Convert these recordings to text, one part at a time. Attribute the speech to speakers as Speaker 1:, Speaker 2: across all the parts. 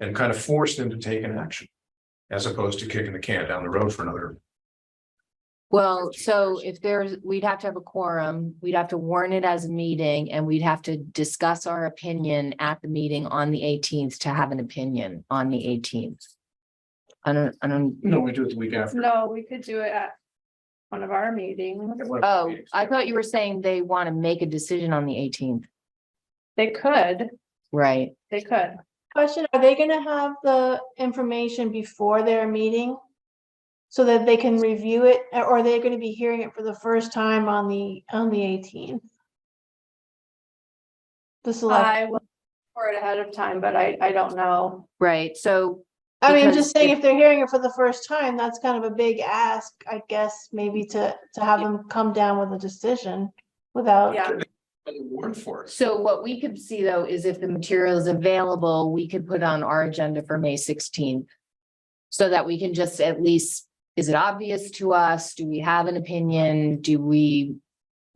Speaker 1: and kind of forced them to take an action. As opposed to kicking the can down the road for another,
Speaker 2: Well, so if there's, we'd have to have a quorum, we'd have to warn it as a meeting and we'd have to discuss our opinion at the meeting on the eighteenth to have an opinion on the eighteenth. I don't, I don't,
Speaker 1: no, we do it the week after.
Speaker 3: No, we could do it at one of our meetings.
Speaker 2: oh, I thought you were saying they want to make a decision on the eighteenth,
Speaker 3: They could,
Speaker 2: right?
Speaker 3: they could.
Speaker 4: Question, are they gonna have the information before their meeting? So that they can review it, or are they gonna be hearing it for the first time on the, on the eighteenth? The select,
Speaker 3: I will for it ahead of time, but I, I don't know.
Speaker 2: Right, so,
Speaker 4: I mean, I'm
Speaker 2: because
Speaker 4: just saying,
Speaker 2: if-
Speaker 4: if they're hearing it for the first time, that's kind of a big ask, I guess, maybe to, to have them come down with a decision without.
Speaker 3: Yeah,
Speaker 1: Word for it.
Speaker 2: so what we could see though is if the material is available, we could put on our agenda for May sixteenth. So that we can just at least, is it obvious to us? Do we have an opinion? Do we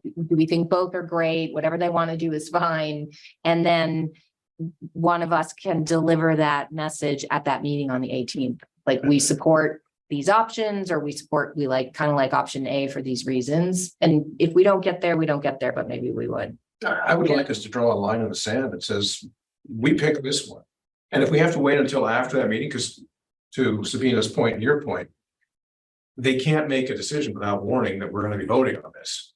Speaker 2: do we think both are great? Whatever they want to do is fine. And then one of us can deliver that message at that meeting on the eighteenth. Like we support these options or we support, we like, kind of like option A for these reasons. And if we don't get there, we don't get there, but maybe we would.
Speaker 1: I, I would like us to draw a line in the sand that says, we pick this one. And if we have to wait until after that meeting, because to Sabina's point and your point. They can't make a decision without warning that we're gonna be voting on this.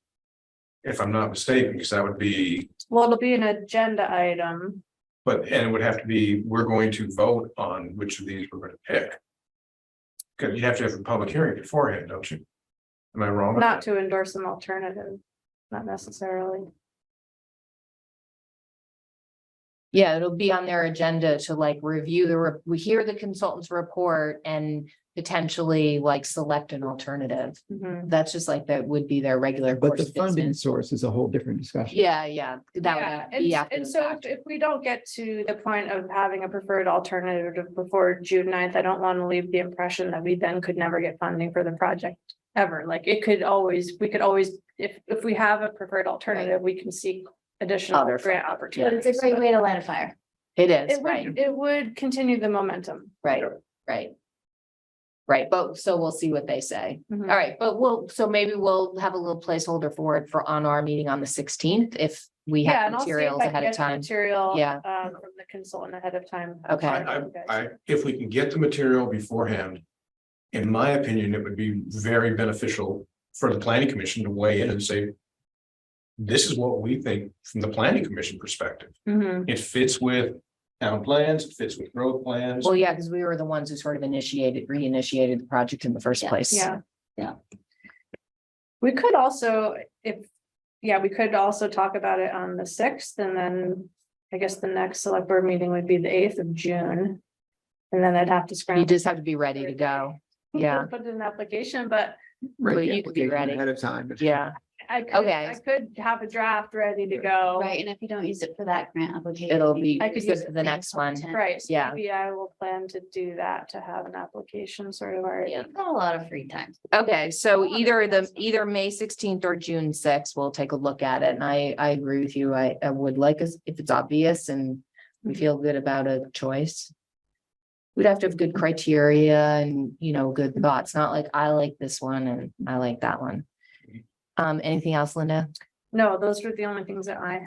Speaker 1: If I'm not mistaken, because that would be,
Speaker 3: well, it'll be an agenda item.
Speaker 1: but, and it would have to be, we're going to vote on which of these we're gonna pick. Because you have to have a public hearing beforehand, don't you? Am I wrong?
Speaker 3: Not to endorse an alternative, not necessarily.
Speaker 2: Yeah, it'll be on their agenda to like review the, re- we hear the consultant's report and potentially like select an alternative.
Speaker 3: Mhm.
Speaker 2: That's just like, that would be their regular
Speaker 5: But
Speaker 2: course
Speaker 5: the
Speaker 2: of
Speaker 5: funding
Speaker 2: business.
Speaker 5: source is a whole different discussion.
Speaker 2: Yeah, yeah,
Speaker 3: Yeah,
Speaker 2: that would
Speaker 3: and,
Speaker 2: be after
Speaker 3: and
Speaker 2: the
Speaker 3: so if-
Speaker 2: fact.
Speaker 3: if we don't get to the point of having a preferred alternative before June 9th, I don't want to leave the impression that we then could never get funding for the project ever. Like it could always, we could always, if, if we have a preferred alternative, we can seek additional
Speaker 2: Other
Speaker 3: grant opportunities. but
Speaker 4: way to light a fire.
Speaker 2: It is,
Speaker 3: It
Speaker 2: right,
Speaker 3: would, it would continue the momentum.
Speaker 2: right, right. Right, but so we'll see what they say.
Speaker 3: Mhm.
Speaker 2: All right, but we'll, so maybe we'll have a little placeholder for it for on our meeting on the sixteenth if we
Speaker 3: Yeah,
Speaker 2: have
Speaker 3: and I'll see if
Speaker 2: materials
Speaker 3: I can
Speaker 2: ahead
Speaker 3: get
Speaker 2: of
Speaker 3: the
Speaker 2: time.
Speaker 3: Material.
Speaker 2: Yeah.
Speaker 3: um, from the consultant ahead of time.
Speaker 2: Okay.
Speaker 1: I, I, I, if we can get the material beforehand. In my opinion, it would be very beneficial for the planning commission to weigh in and say. This is what we think from the planning commission perspective.
Speaker 3: Mhm.
Speaker 1: It fits with town plans, it fits with road plans.
Speaker 2: Well, yeah, because we were the ones who sort of initiated, reinitiated the project in the first place.
Speaker 3: Yeah.
Speaker 2: Yeah.
Speaker 3: We could also, if, yeah, we could also talk about it on the sixth and then I guess the next select board meeting would be the eighth of June. And then I'd have to
Speaker 2: You
Speaker 3: scramble.
Speaker 2: just have to be ready to go. yeah.
Speaker 3: Put in an application, but
Speaker 2: But
Speaker 5: Right, the
Speaker 2: you could be
Speaker 5: application
Speaker 2: ready.
Speaker 5: Ahead of time.
Speaker 2: Yeah,
Speaker 3: I could,
Speaker 2: Okay.
Speaker 3: I could have a draft ready to go.
Speaker 6: Right, and if you don't use it for that grant application.
Speaker 2: it'll be
Speaker 3: I could
Speaker 2: good
Speaker 3: use
Speaker 2: for the next one.
Speaker 3: Right, so
Speaker 2: Yeah.
Speaker 3: maybe I will plan to do that, to have an application sort of already.
Speaker 6: Yeah, I've got a lot of free time.
Speaker 2: Okay, so
Speaker 6: Oh, that's
Speaker 2: either the,
Speaker 6: awesome.
Speaker 2: either May sixteenth or June sixth, we'll take a look at it. And I, I agree with you. I, I would like us, if it's obvious and we
Speaker 3: Mhm.
Speaker 2: feel good about a choice. We'd have to have good criteria and, you know, good thoughts, not like I like this one and I like that one. Um, anything else, Linda?
Speaker 3: No, those were the only things that I.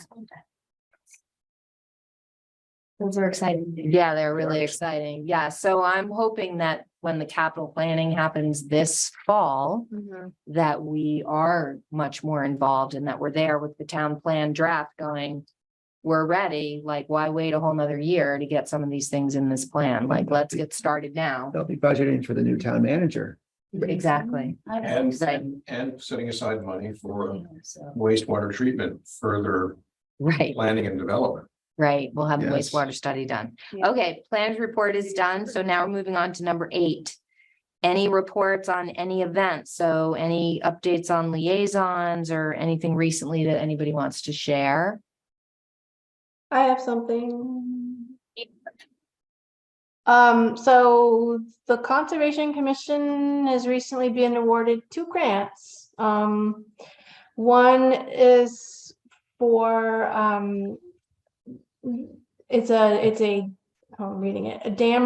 Speaker 6: Those are exciting.
Speaker 2: Yeah, they're really exciting. Yeah, so I'm hoping that when the capital planning happens this fall,
Speaker 6: Mm-hmm.
Speaker 3: Mhm.
Speaker 2: that we are much more involved and that we're there with the town plan draft going. We're ready, like why wait a whole nother year to get some of these things in this plan? Like, let's get started now.
Speaker 5: They'll be budgeting for the new town manager.
Speaker 2: Exactly.
Speaker 6: I don't
Speaker 1: And,
Speaker 2: Exciting.
Speaker 1: and setting aside money for
Speaker 6: know, so.
Speaker 1: wastewater treatment, further
Speaker 2: Right,
Speaker 1: planning and development.
Speaker 2: right. We'll have the
Speaker 5: Yes.
Speaker 2: wastewater study done.
Speaker 3: Yeah.
Speaker 2: Okay, plans report is done. So now we're moving on to number eight. Any reports on any events? So any updates on liaisons or anything recently that anybody wants to share?
Speaker 4: I have something. Um, so the Conservation Commission has recently been awarded two grants. Um, one is for, um, it's a, it's a how I'm reading it, a dam